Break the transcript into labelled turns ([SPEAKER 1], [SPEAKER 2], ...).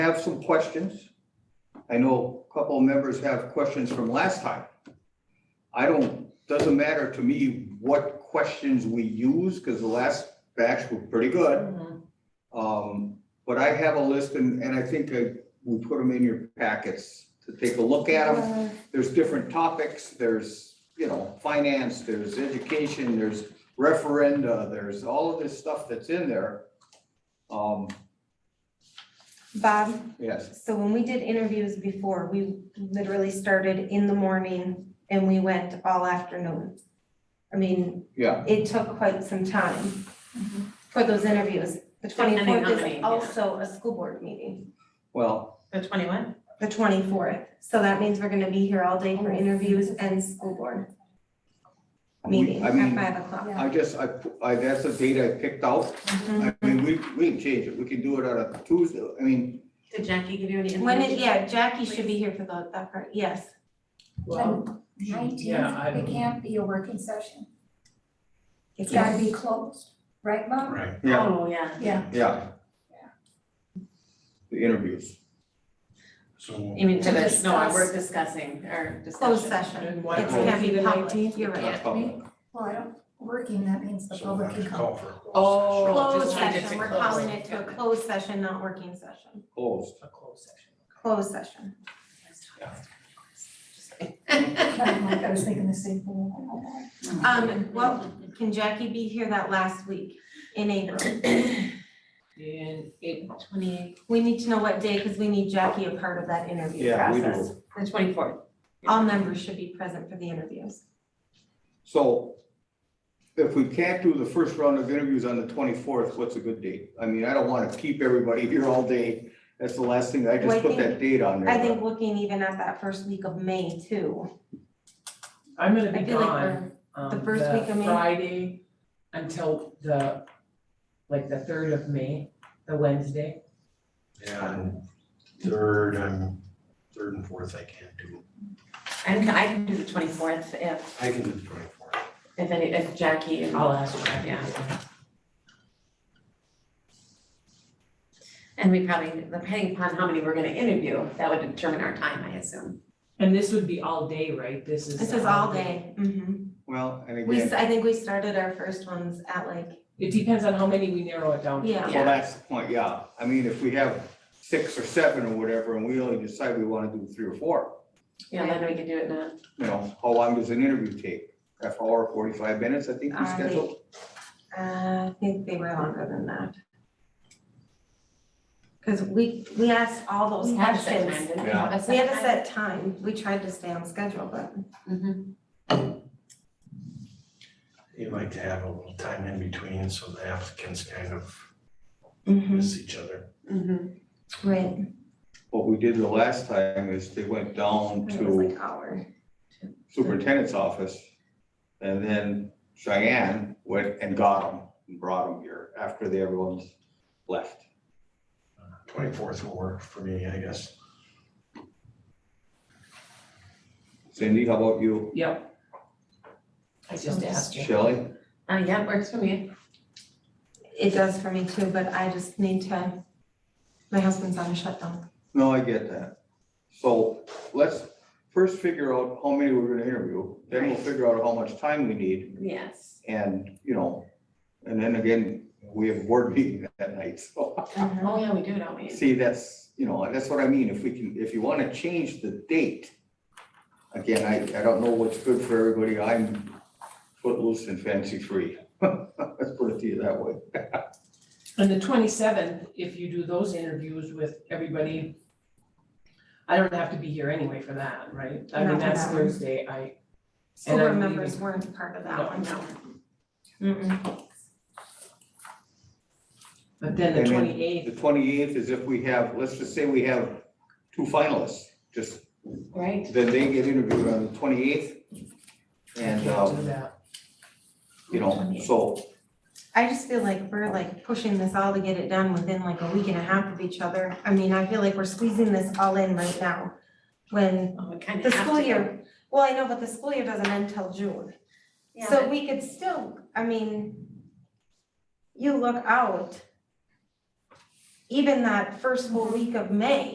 [SPEAKER 1] have some questions. I know a couple of members have questions from last time. I don't, doesn't matter to me what questions we use, because the last batch were pretty good.
[SPEAKER 2] Mm-hmm.
[SPEAKER 1] Um, but I have a list and, and I think uh, we put them in your packets to take a look at them. There's different topics, there's, you know, finance, there's education, there's referenda, there's all of this stuff that's in there. Um,
[SPEAKER 3] Bob,
[SPEAKER 1] yes,
[SPEAKER 3] so when we did interviews before, we literally started in the morning and we went all afternoon. I mean,
[SPEAKER 1] yeah,
[SPEAKER 3] it took quite some time
[SPEAKER 2] Mhm.
[SPEAKER 3] for those interviews. The
[SPEAKER 2] Depending on
[SPEAKER 3] twenty-fourth
[SPEAKER 2] the meeting,
[SPEAKER 3] is
[SPEAKER 2] yeah.
[SPEAKER 3] also a school board meeting,
[SPEAKER 1] well,
[SPEAKER 2] The twenty-one?
[SPEAKER 3] the twenty-fourth. So that means we're gonna be here all day for interviews and school board
[SPEAKER 1] we,
[SPEAKER 3] meeting
[SPEAKER 1] I
[SPEAKER 3] at
[SPEAKER 1] mean,
[SPEAKER 3] five o'clock.
[SPEAKER 1] I just, I, pu- I, that's the date I picked out. I
[SPEAKER 3] Mm-hmm.
[SPEAKER 1] mean, we, we can change it, we can do it on a Tuesday, I mean,
[SPEAKER 2] Did Jackie give you any information?
[SPEAKER 3] When it, yeah, Jackie should be here for the, that part, yes.
[SPEAKER 4] Well,
[SPEAKER 5] yeah, I
[SPEAKER 4] nineteenth,
[SPEAKER 5] don't-
[SPEAKER 4] it can't be a working session. It's
[SPEAKER 3] Yeah.
[SPEAKER 4] gotta be closed, right, Bob?
[SPEAKER 5] Right.
[SPEAKER 1] yeah,
[SPEAKER 2] Oh, yeah.
[SPEAKER 4] Yeah,
[SPEAKER 1] yeah. The interviews,
[SPEAKER 5] So,
[SPEAKER 2] You mean to the,
[SPEAKER 4] Discuss.
[SPEAKER 2] no, we're discussing or discussion.
[SPEAKER 3] Closed session.
[SPEAKER 6] And
[SPEAKER 3] It's
[SPEAKER 5] can't
[SPEAKER 3] gonna
[SPEAKER 6] be
[SPEAKER 3] be
[SPEAKER 6] the
[SPEAKER 3] public,
[SPEAKER 6] 19th?
[SPEAKER 3] you're right.
[SPEAKER 1] not public.
[SPEAKER 4] well, I don't, working, that means the
[SPEAKER 5] so we
[SPEAKER 4] public
[SPEAKER 5] have
[SPEAKER 4] can
[SPEAKER 5] to
[SPEAKER 4] come.
[SPEAKER 5] call for a closed
[SPEAKER 6] Oh.
[SPEAKER 5] session.
[SPEAKER 3] Closed
[SPEAKER 2] Just change it
[SPEAKER 3] session,
[SPEAKER 2] to
[SPEAKER 3] we're
[SPEAKER 2] closed.
[SPEAKER 3] calling it to a closed session, not working session,
[SPEAKER 1] closed.
[SPEAKER 6] A closed session.
[SPEAKER 3] closed session.
[SPEAKER 4] I was thinking the same thing.
[SPEAKER 3] Um, well, can Jackie be here that last week in April?
[SPEAKER 6] And it,
[SPEAKER 2] Twenty,
[SPEAKER 3] We need to know what day, because we need Jackie a part of that interview
[SPEAKER 1] Yeah, we do.
[SPEAKER 3] process.
[SPEAKER 2] the twenty-fourth.
[SPEAKER 3] All members should be present for the interviews.
[SPEAKER 1] So if we can't do the first round of interviews on the twenty-fourth, what's a good date? I mean, I don't want to keep everybody here all day. That's the last thing, I
[SPEAKER 3] Well,
[SPEAKER 1] just
[SPEAKER 3] I
[SPEAKER 1] put that
[SPEAKER 3] think-
[SPEAKER 1] date on there.
[SPEAKER 3] I think looking even at that first week of May too,
[SPEAKER 6] I'm gonna
[SPEAKER 3] I
[SPEAKER 6] be
[SPEAKER 3] feel like
[SPEAKER 6] gone,
[SPEAKER 3] we're, the
[SPEAKER 6] um,
[SPEAKER 3] first week of
[SPEAKER 6] the
[SPEAKER 3] May.
[SPEAKER 6] Friday until the, like, the third of May, the Wednesday.
[SPEAKER 5] And third, I'm, third and fourth, I can't do,
[SPEAKER 2] I can, I can do the twenty-fourth if,
[SPEAKER 5] I can do the twenty-fourth.
[SPEAKER 2] if any, if Jackie and
[SPEAKER 6] I'll ask Jackie.
[SPEAKER 2] Yeah. And we probably, depending upon how many we're gonna interview, that would determine our time, I assume.
[SPEAKER 6] And this would be all day, right? This is.
[SPEAKER 3] this is all day. Mhm.
[SPEAKER 1] Well, and
[SPEAKER 3] We, s-
[SPEAKER 1] again,
[SPEAKER 3] I think we started our first ones at like,
[SPEAKER 6] It depends on how many we narrow it down to.
[SPEAKER 3] yeah,
[SPEAKER 1] well, that's the point, yeah. I mean, if we have six or seven or whatever, and we only decide we want to do three or four,
[SPEAKER 2] Yeah, then we could do it in a,
[SPEAKER 1] you know, how long does an interview take? Half hour, forty-five minutes, I think we
[SPEAKER 3] Um,
[SPEAKER 1] scheduled.
[SPEAKER 3] Uh, I think they were longer than that. Cause we, we asked all those
[SPEAKER 2] we had a set time,
[SPEAKER 3] questions.
[SPEAKER 2] didn't we?
[SPEAKER 1] Yeah.
[SPEAKER 2] Have a set
[SPEAKER 3] We had a
[SPEAKER 2] time?
[SPEAKER 3] set time, we tried to stay on schedule, but
[SPEAKER 2] Mhm.
[SPEAKER 5] You like to have a little time in between, so the applicants kind of
[SPEAKER 2] Mm-hmm.
[SPEAKER 5] miss each other.
[SPEAKER 2] Mhm.
[SPEAKER 3] right,
[SPEAKER 1] What we did the last time is they went down
[SPEAKER 3] it was
[SPEAKER 1] to
[SPEAKER 3] like hour.
[SPEAKER 1] superintendent's office. And then Cheyenne went and got them and brought them here after the everyone's left.
[SPEAKER 5] Twenty-fourth will work for me, I guess.
[SPEAKER 1] Cindy, how about you?
[SPEAKER 6] Yep. I just asked you.
[SPEAKER 1] Shelley?
[SPEAKER 2] Uh, yeah, works for me.
[SPEAKER 3] It does for me too, but I just need to, my husband's on a shutdown.
[SPEAKER 1] No, I get that. So let's first figure out how many we're gonna interview, then we'll
[SPEAKER 2] Right.
[SPEAKER 1] figure out how much time we need
[SPEAKER 2] Yes.
[SPEAKER 1] and, you know, and then again, we have a board meeting that night, so.
[SPEAKER 2] Oh, yeah, we do, don't we?
[SPEAKER 1] See, that's, you know, that's what I mean, if we can, if you wanna change the date. Again, I, I don't know what's good for everybody, I'm footloose and fancy free. Let's put it to you that way.
[SPEAKER 6] And the twenty-seventh, if you do those interviews with everybody, I don't have to be here anyway for that, right? I
[SPEAKER 3] Not
[SPEAKER 6] mean,
[SPEAKER 3] for
[SPEAKER 6] that's
[SPEAKER 3] that one.
[SPEAKER 6] Thursday, I,
[SPEAKER 3] School
[SPEAKER 6] And I'm
[SPEAKER 3] board members
[SPEAKER 6] leaving.
[SPEAKER 3] weren't part of
[SPEAKER 6] No.
[SPEAKER 3] that one, no. Mm-mm.
[SPEAKER 6] but then the
[SPEAKER 1] And then-
[SPEAKER 6] twenty-eighth,
[SPEAKER 1] The twenty-eighth is if we have, let's just say we have two finalists, just
[SPEAKER 2] Right?
[SPEAKER 1] Then they get interviewed on the twenty-eighth. And,
[SPEAKER 6] can't do
[SPEAKER 1] um,
[SPEAKER 6] that.
[SPEAKER 1] you know, so,
[SPEAKER 3] I just feel like we're like pushing this all to get it done within like a week and a half of each other. I mean, I feel like we're squeezing this all in right now. When
[SPEAKER 2] Well, we kind of
[SPEAKER 3] the
[SPEAKER 2] have to.
[SPEAKER 3] school year, well, I know, but the school year doesn't end till June.
[SPEAKER 2] Yeah,
[SPEAKER 3] So
[SPEAKER 2] but-
[SPEAKER 3] we could still, I mean, you look out even that first full week of May,